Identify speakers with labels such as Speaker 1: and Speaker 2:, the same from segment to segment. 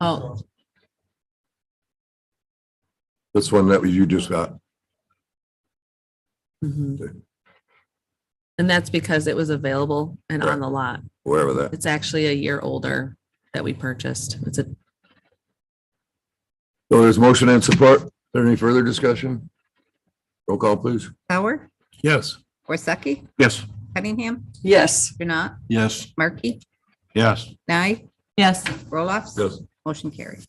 Speaker 1: Oh,
Speaker 2: This one that you just got.
Speaker 1: mhm. and that's because it was available and on the lot.
Speaker 2: wherever that,
Speaker 1: It's actually a year older that we purchased. It's a,
Speaker 2: so there's motion and support. Is there any further discussion? Roll call, please.
Speaker 3: Howard,
Speaker 4: Yes.
Speaker 3: Worsaki,
Speaker 4: Yes.
Speaker 3: Cunningham,
Speaker 5: Yes.
Speaker 3: Kurnat,
Speaker 4: Yes.
Speaker 3: Markey,
Speaker 4: Yes.
Speaker 3: Nye,
Speaker 5: Yes.
Speaker 3: Roloffs.
Speaker 2: Yes.
Speaker 3: Motion carried.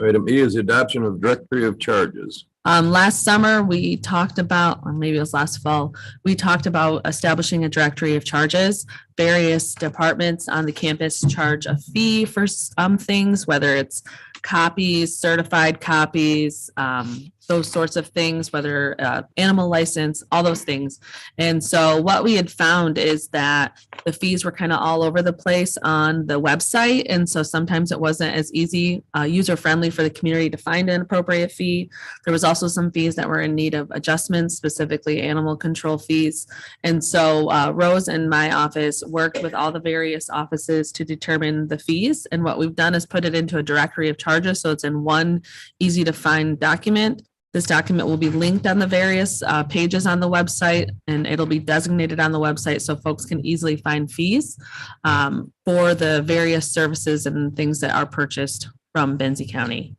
Speaker 2: Item E is the adoption of directory of charges.
Speaker 1: um, last summer, we talked about, or maybe it was last fall, we talked about establishing a directory of charges. Various departments on the campus charge a fee for some things, whether it's copies, certified copies, um, those sorts of things, whether, uh, animal license, all those things. And so what we had found is that the fees were kind of all over the place on the website. And so sometimes it wasn't as easy, uh, user-friendly for the community to find an appropriate fee. There was also some fees that were in need of adjustments, specifically animal control fees. And so uh, Rose and my office worked with all the various offices to determine the fees. And what we've done is put it into a directory of charges, so it's in one easy to find document. This document will be linked on the various uh, pages on the website, and it'll be designated on the website so folks can easily find fees um, for the various services and things that are purchased from Benzie County.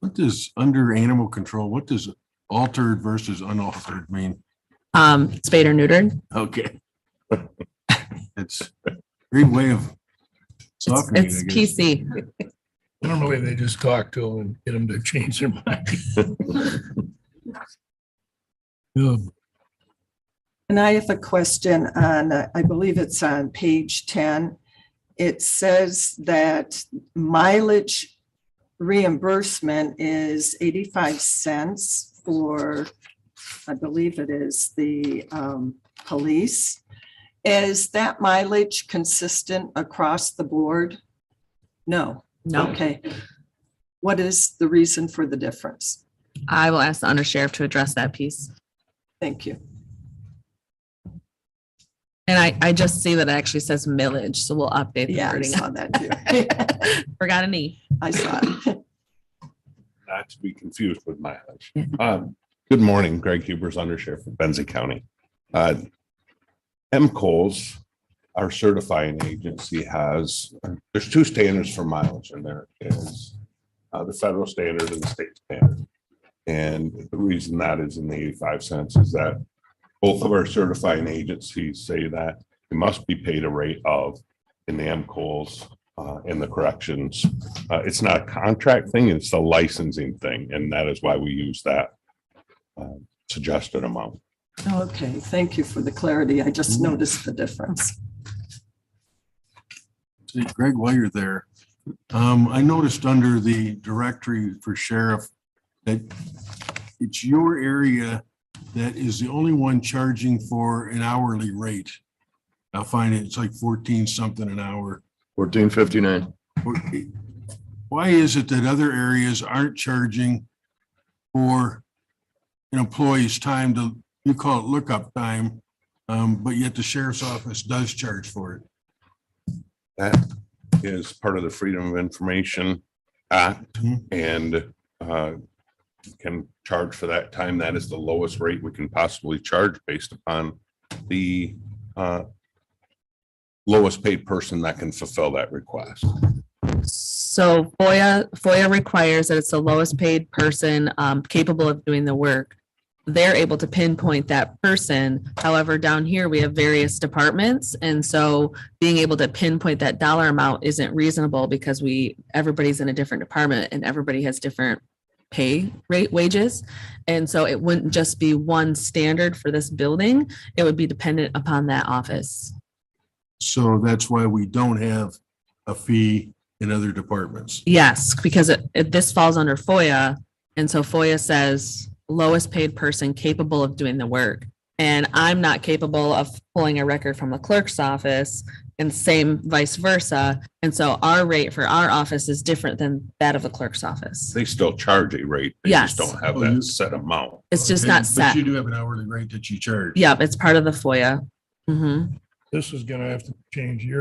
Speaker 4: What does under animal control, what does altered versus unaltered mean?
Speaker 1: Um, Spayed or neutered.
Speaker 4: Okay. It's a great way of
Speaker 1: It's
Speaker 4: softening it,
Speaker 1: it's
Speaker 4: I guess.
Speaker 1: PC.
Speaker 6: Normally, they just talk to them and get them to change their mind. Yeah,
Speaker 5: And I have a question on, uh, I believe it's on page 10. It says that mileage reimbursement is 85 cents for, I believe it is the um, police. Is that mileage consistent across the board? No.
Speaker 1: No,
Speaker 5: Okay. What is the reason for the difference?
Speaker 1: I will ask the undersheriff to address that piece.
Speaker 5: Thank you.
Speaker 1: And I, I just see that it actually says millage, so we'll update the
Speaker 5: Yeah, I
Speaker 1: wording.
Speaker 5: saw that too.
Speaker 1: Forgot an E.
Speaker 5: I saw it.
Speaker 7: not to be confused with mileage.
Speaker 1: Yeah.
Speaker 7: Um, Good morning, Greg Huber's undersheriff of Benzie County. Uh, MCOs, our certifying agency has, there's two standards for mileage and there is uh, the federal standard and the state standard. And the reason that is in the 85 cents is that both of our certifying agencies say that it must be paid a rate of in the MCOs uh, and the corrections uh, it's not a contract thing, it's a licensing thing, and that is why we use that uh, suggested amount.
Speaker 5: Okay, thank you for the clarity. I just noticed the difference.
Speaker 4: See, Greg, while you're there, um, I noticed under the directory for sheriff that it's your area that is the only one charging for an hourly rate. I find it, it's like fourteen something an hour.
Speaker 2: Fourteen fifty-nine.
Speaker 4: Why is it that other areas aren't charging for an employee's time to, you call it lookup time, um, but yet the sheriff's office does charge for it?
Speaker 7: That is part of the Freedom of Information Act
Speaker 4: Mhm.
Speaker 7: and uh, can charge for that time. That is the lowest rate we can possibly charge based upon the uh, lowest paid person that can fulfill that request.
Speaker 1: So FOIA, FOIA requires that it's the lowest paid person um, capable of doing the work. They're able to pinpoint that person. However, down here, we have various departments. And so being able to pinpoint that dollar amount isn't reasonable because we, everybody's in a different department and everybody has different pay rate wages. And so it wouldn't just be one standard for this building. It would be dependent upon that office.
Speaker 4: So that's why we don't have a fee in other departments.
Speaker 1: Yes, because it, it, this falls under FOIA. And so FOIA says lowest paid person capable of doing the work. And I'm not capable of pulling a record from the clerk's office and same vice versa. And so our rate for our office is different than that of the clerk's office.
Speaker 7: They still charge a rate. They just
Speaker 1: Yes.
Speaker 7: don't have
Speaker 4: Oh, you-
Speaker 7: that set amount.
Speaker 1: It's just
Speaker 4: Okay,
Speaker 1: not
Speaker 4: But
Speaker 1: set.
Speaker 4: you do have an hourly rate that you charge.
Speaker 1: Yep, it's part of the FOIA. hmm
Speaker 6: This is gonna have to change year